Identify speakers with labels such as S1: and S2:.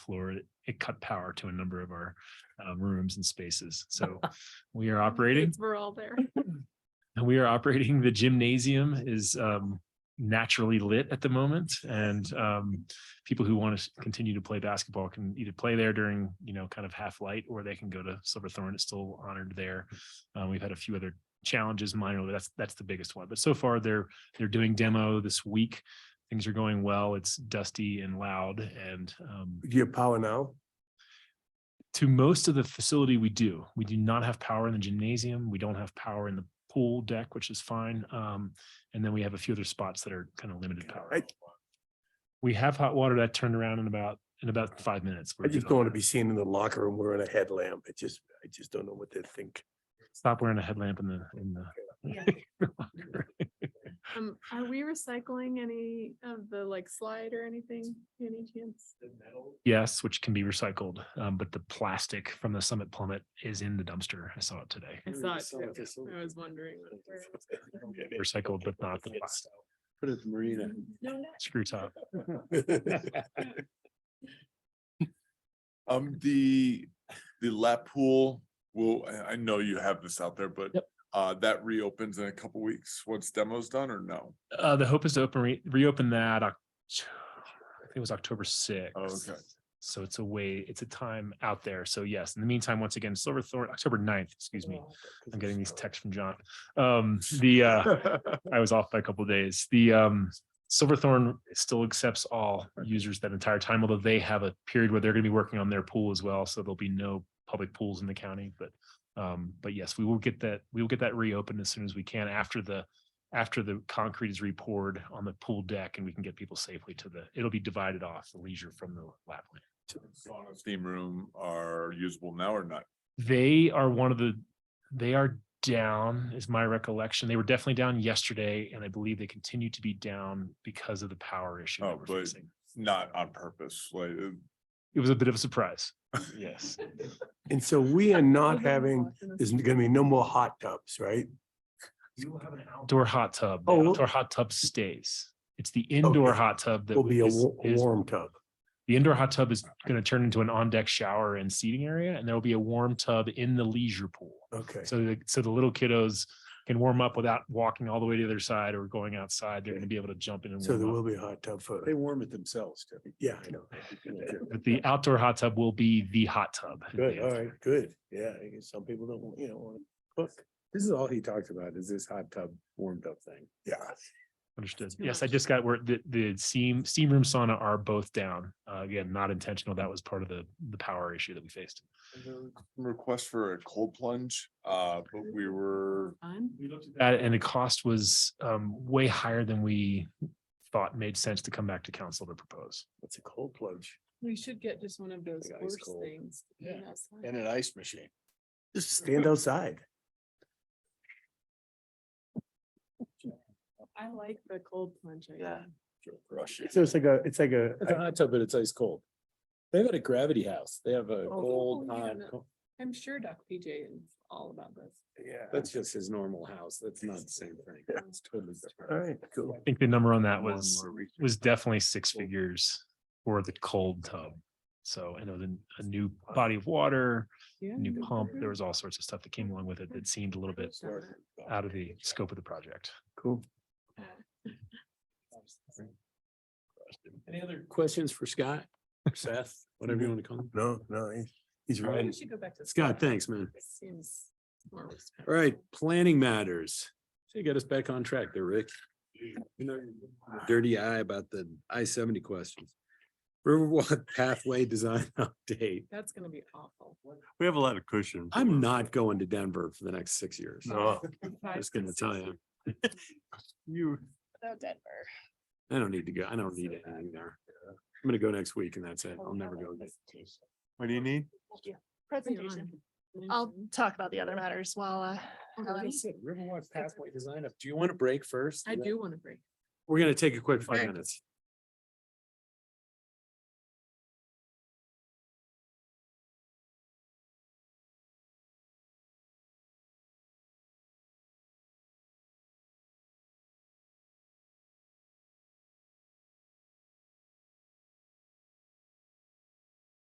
S1: floor, it- it cut power to a number of our um, rooms and spaces. So we are operating,
S2: We're all there.
S1: we are operating. The gymnasium is um, naturally lit at the moment. And um, people who want to continue to play basketball can either play there during, you know, kind of half light, or they can go to Silverthorne. It's still honored there. Uh, We've had a few other challenges minor, but that's, that's the biggest one. But so far they're, they're doing demo this week. Things are going well. It's dusty and loud and um,
S3: Do you have power now?
S1: to most of the facility we do we do not have power in the gymnasium we don't have power in the pool deck which is fine um, and then we have a few other spots that are kind of limited power
S3: I-
S1: we have hot water that turned around in about in about five minutes
S3: I
S1: We're
S3: just
S1: good on
S3: don't want to
S1: that.
S3: be seen in the locker room wearing a headlamp. I just, I just don't know what they think.
S1: stop wearing a headlamp in the in the
S2: Um, are we recycling any of the like slide or anything, any chance?
S1: yes which can be recycled um, but the plastic from the summit plummet is in the dumpster i saw it today
S2: I saw it too. I was wondering. where it was.
S1: recycled but not the plastic
S4: Put it at the marina.
S2: No, no,
S1: screw top
S4: Um, the, the lap pool, well, I, I know you have this out there, but uh, that reopens in a couple weeks once demo's done or no?
S1: uh, the hope is to open re- reopen that Oc- I think it was October sixth.
S4: Oh, Okay.
S1: So it's a way, it's a time out there. So yes, in the meantime, once again, Silverthorne, October 9th, excuse me.
S3: Oh,
S1: I'm getting these texts from John. Um, the uh, I was off by a couple of days. The um Silverthorne still accepts all users that entire time, although they have a period where they're gonna be working on their pool as well, so there'll be no public pools in the county, but um, but yes, we will get that, we will get that reopened as soon as we can after the after the concrete is re-poured on the pool deck and we can get people safely to the, it'll be divided off the leisure from the lap lane.
S4: Sauna, Steam room are usable now or not?
S1: They are one of the, they are down is my recollection. They were definitely down yesterday and I believe they continue to be down because of the power issue
S4: Oh,
S1: that we're
S4: but-
S1: facing.
S4: Not on purpose, like, uh,
S1: It was a bit of a surprise. Yes.
S3: And so we are
S2: I
S3: not
S2: was almost
S3: having,
S2: watching this.
S3: there's gonna be no more hot tubs, right?
S1: We will have an outdoor hot tub.
S3: Oh,
S1: The
S3: well-
S1: outdoor hot tub stays. It's the indoor
S3: Okay.
S1: hot tub that
S3: There'll be a
S1: is-
S3: wa- a
S1: is-
S3: warm tub.
S1: The indoor hot tub is going to turn into an on-deck shower and seating area, and there will be a warm tub in the leisure pool.
S3: Okay.
S1: So the, so the little kiddos can warm up without walking all the way to the other side or going outside. They're going to be able to jump in and
S3: So there
S1: warm up.
S3: will be a hot tub for,
S5: They warm it themselves, too.
S3: yeah, I know.
S1: But the outdoor hot tub will be the hot tub. is the
S5: Good, all
S1: answer.
S5: right, good. Yeah, I guess some people don't, you know, want to cook. This is all he talked about is this hot tub, warmed up thing.
S3: Yeah.
S1: Understood.
S2: Too
S1: Yes, I
S2: much.
S1: just got where the, the steam, steam room sauna are both down. Uh, again, not intentional. That was part of the, the power issue that we faced.
S4: request for a cold plunge, uh, but we were,
S2: Fun.
S1: We looked at that. And the cost was, um, way higher than we thought made sense to come back to council to propose.
S3: It's a cold plunge.
S2: We should get just one of those
S5: Like
S2: horse
S5: ice cold.
S2: things. to
S5: Yeah.
S2: put outside.
S5: And an ice machine.
S3: Just stand
S5: uh,
S3: outside.
S2: I like the cold plunge. idea.
S5: Rush it.
S3: So it's like a, it's like a,
S5: It's a hot tub, but it's ice cold. They've got a gravity house. They have a
S2: Oh,
S5: cold,
S2: yeah,
S5: hot,
S2: no.
S5: co-
S2: I'm sure Doc PJ is all about this.
S3: yeah.
S5: that's just his normal house. That's not the same thing. It's totally
S3: All
S5: different.
S3: right, cool.
S1: I think the number on that
S5: More and
S1: was,
S5: more research.
S1: was definitely six figures for the cold tub. So, and it was a- a new body of water,
S2: Yeah.
S1: new pump. There
S2: Mhm.
S1: was all sorts of stuff that came along with it that seemed a little bit out of the scope of the project.
S3: Cool.
S5: Any other questions for Scott, or Seth, whatever you want to call him?
S3: No, no, he's- he's
S2: Maybe
S3: right.
S2: we should go back to.
S5: Scott, thanks, man.
S2: Seems more respectful.
S5: All right, planning matters. So you got us back on track there, Rick. You know, your Dirty eye about the I seventy questions. Riverwalk pathway design update.
S2: That's gonna be awful.
S4: we have a lot of cushion.
S5: I'm not going to Denver for the next six years.
S3: No.
S5: I was gonna tell you,
S4: You,
S2: Without Denver.
S5: I don't need to go. I don't need anything there. I'm gonna go next week and that's it. I'll never go. again.
S4: what do you need?
S2: Presentation.
S6: I'll talk about the other matters while, uh, Ellen.
S5: That's it, Riverwalk pathway design up. Do you want a break first?
S2: I do want to break.
S5: We're gonna take a quick five
S2: Okay.
S5: minutes.